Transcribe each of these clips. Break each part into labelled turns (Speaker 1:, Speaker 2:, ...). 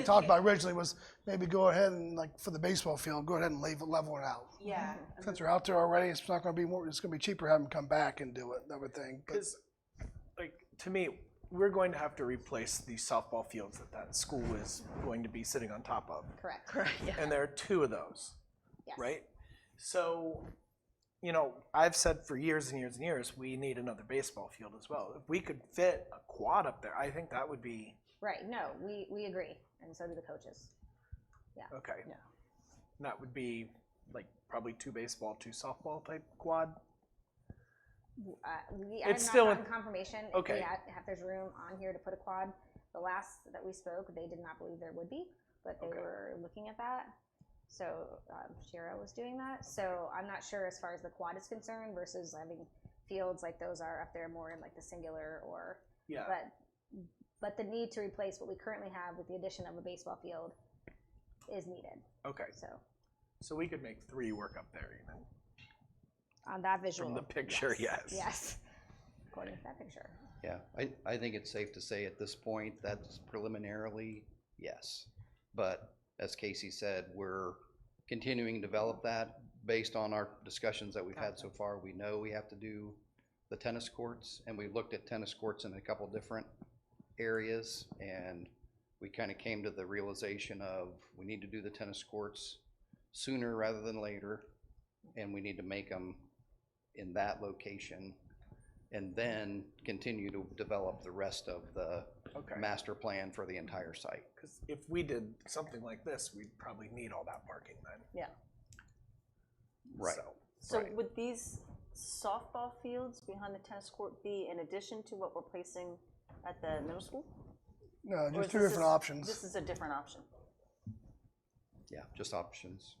Speaker 1: we talked about originally was maybe go ahead and like for the baseball field, go ahead and leave, level it out.
Speaker 2: Yeah.
Speaker 1: Since they're out there already, it's not gonna be more, it's gonna be cheaper having them come back and do it, I would think, but
Speaker 3: Because, like, to me, we're going to have to replace the softball fields that that school is going to be sitting on top of.
Speaker 4: Correct.
Speaker 3: And there are two of those,
Speaker 4: Yes.
Speaker 3: right? So, you know, I've said for years and years and years, we need another baseball field as well. If we could fit a quad up there, I think that would be
Speaker 4: Right. No, we, we agree. And so do the coaches.
Speaker 3: okay.
Speaker 4: Yeah.
Speaker 3: That would be like probably two baseball, two softball type quad.
Speaker 4: Uh, we,
Speaker 3: It's
Speaker 4: I'm
Speaker 3: still
Speaker 4: not
Speaker 3: in-
Speaker 4: gotten confirmation if
Speaker 3: Okay.
Speaker 4: we ha- if there's room on here to put a quad. The last that we spoke, they did not believe there would be, but they
Speaker 3: Okay.
Speaker 4: were looking at that. So um, Shira was doing that. So I'm not sure as far as the quad is concerned versus having fields like those are up there more in like the singular or
Speaker 3: Yeah.
Speaker 4: but but the need to replace what we currently have with the addition of a baseball field is needed.
Speaker 3: Okay.
Speaker 4: So
Speaker 3: So we could make three work up there even.
Speaker 4: on that visual
Speaker 3: the picture, yes.
Speaker 4: yes, according to that picture.
Speaker 5: Yeah, I, I think it's safe to say at this point, that's preliminarily, yes. But as Casey said, we're continuing to develop that based on our discussions that we've had so far. We know we have to do the tennis courts, and we looked at tennis courts in a couple different areas, and we kind of came to the realization of, we need to do the tennis courts sooner rather than later, and we need to make them in that location and then continue to develop the rest of the
Speaker 3: Okay.
Speaker 5: master plan for the entire site.
Speaker 3: Because if we did something like this, we'd probably need all that parking then.
Speaker 5: Right.
Speaker 3: So,
Speaker 2: So
Speaker 5: Right.
Speaker 2: would these softball fields behind the tennis court be in addition to what we're placing at the middle school?
Speaker 1: no,
Speaker 2: Or
Speaker 1: just
Speaker 2: is
Speaker 1: two
Speaker 2: this
Speaker 1: different
Speaker 2: a-
Speaker 1: options.
Speaker 2: This is a different option.
Speaker 5: Yeah, just options.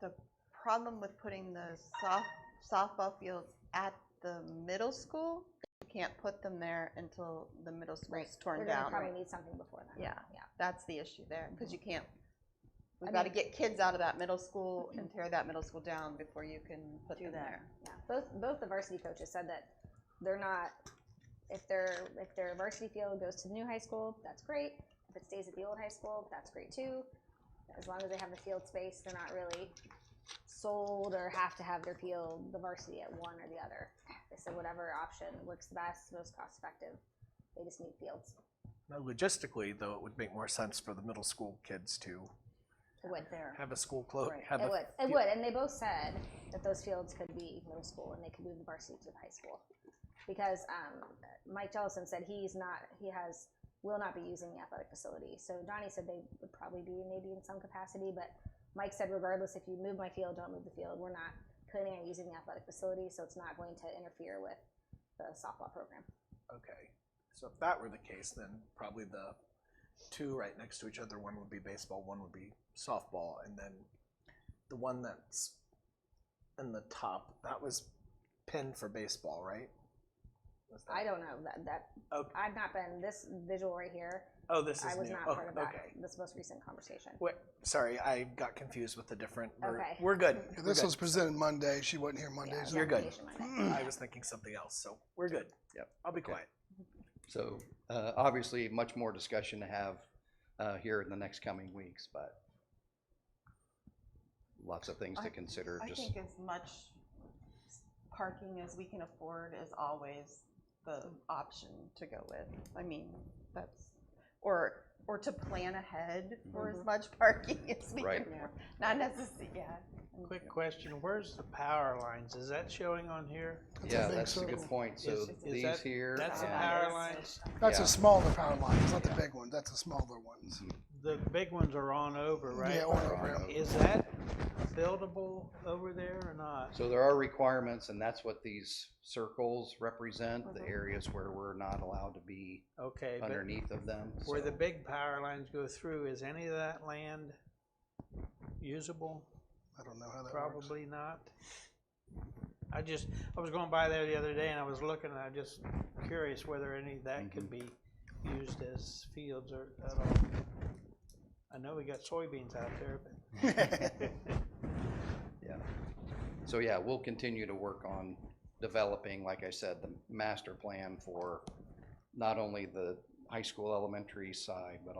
Speaker 6: the problem with putting the soft, softball fields at the middle school, you can't put them there until the middle school's
Speaker 4: We're
Speaker 6: torn
Speaker 4: gonna
Speaker 6: down.
Speaker 4: probably need something before that.
Speaker 6: Yeah,
Speaker 4: Yeah.
Speaker 6: that's the issue there, because you can't,
Speaker 4: I
Speaker 6: we've got to
Speaker 4: mean-
Speaker 6: get kids out of that middle school and tear that middle school down before you can put
Speaker 2: Do
Speaker 6: them
Speaker 2: that.
Speaker 6: there.
Speaker 4: Yeah, both both the varsity coaches said that they're not if their if their varsity field goes to the new high school, that's great. If it stays at the old high school, that's great too. As long as they have the field space, they're not really sold or have to have their field the varsity at one or the other. They said whatever option works the best, most cost effective. They just need fields.
Speaker 3: now logistically, though, it would make more sense for the middle school kids to
Speaker 4: It would.
Speaker 2: There.
Speaker 3: have a school close.
Speaker 2: Right.
Speaker 3: Have
Speaker 4: It
Speaker 3: a
Speaker 4: would. It
Speaker 3: Oh, field-
Speaker 4: would. And they both said that those fields could be middle school and they could move the varsity to the high school. Because um, Mike Jellison said he's not, he has, will not be using the athletic facility. So Donnie said they would probably be maybe in some capacity, but Mike said regardless, if you move my field, don't move the field. We're not planning on using the athletic facility, so it's not going to interfere with the softball program.
Speaker 3: Okay. So if that were the case, then probably the two right next to each other, one would be baseball, one would be softball, and then the one that's in the top, that was pinned for baseball, right? Was that-
Speaker 4: I don't know that, that,
Speaker 3: Okay.
Speaker 4: I've not been, this visual right here,
Speaker 3: Oh, this is
Speaker 4: I was
Speaker 3: new.
Speaker 4: not
Speaker 3: Oh,
Speaker 4: part of that,
Speaker 3: Okay.
Speaker 4: this most recent conversation.
Speaker 3: Wait, sorry, I got confused with the different. We're,
Speaker 4: Okay.
Speaker 3: we're good.
Speaker 1: Yeah,
Speaker 3: We're
Speaker 1: This
Speaker 3: good.
Speaker 1: was presented Monday, she wasn't here Monday.
Speaker 4: Yeah,
Speaker 1: so-
Speaker 4: the
Speaker 3: You're good.
Speaker 4: application Monday.
Speaker 3: I was thinking something else, so we're good.
Speaker 5: Yep.
Speaker 3: I'll be
Speaker 5: Okay.
Speaker 3: quiet.
Speaker 5: So uh, obviously, much more discussion to have uh, here in the next coming weeks, but lots of things to
Speaker 6: I-
Speaker 5: consider.
Speaker 6: I
Speaker 5: Just
Speaker 6: think as much parking as we can afford is always the option to go with. I mean, that's, or, or to plan ahead for as much parking as we
Speaker 5: Mm-hmm. Right.
Speaker 6: can afford. Not necessarily, yeah.
Speaker 7: Quick question, where's the power lines? Is that showing on here?
Speaker 1: That's a
Speaker 5: Yeah,
Speaker 1: big
Speaker 5: that's a
Speaker 1: circle.
Speaker 5: good point. So
Speaker 7: Is- is
Speaker 5: these
Speaker 7: that-
Speaker 5: here. uh,
Speaker 7: That's the
Speaker 5: and-
Speaker 7: power lines.
Speaker 1: That's
Speaker 5: Yeah.
Speaker 1: a smaller power line, it's not the big one, that's the smaller ones.
Speaker 7: The big ones are on over, right?
Speaker 1: Yeah, or- or-
Speaker 7: Is that buildable over there or not?
Speaker 5: So there are requirements, and that's what these circles represent,
Speaker 6: Mm-hmm.
Speaker 5: the areas where we're not allowed to be
Speaker 7: Okay, but
Speaker 5: underneath of them.
Speaker 7: where
Speaker 5: so-
Speaker 7: the big power lines go through, is any of that land usable?
Speaker 1: I don't know how that works.
Speaker 7: Probably not. I just, I was going by there the other day and I was looking and I'm just curious whether any of that
Speaker 1: Mm-hmm.
Speaker 7: could be used as fields or at all. I know we got soybeans out there, but.
Speaker 5: Yeah. So yeah, we'll continue to work on developing, like I said, the master plan for not only the high school, elementary side, but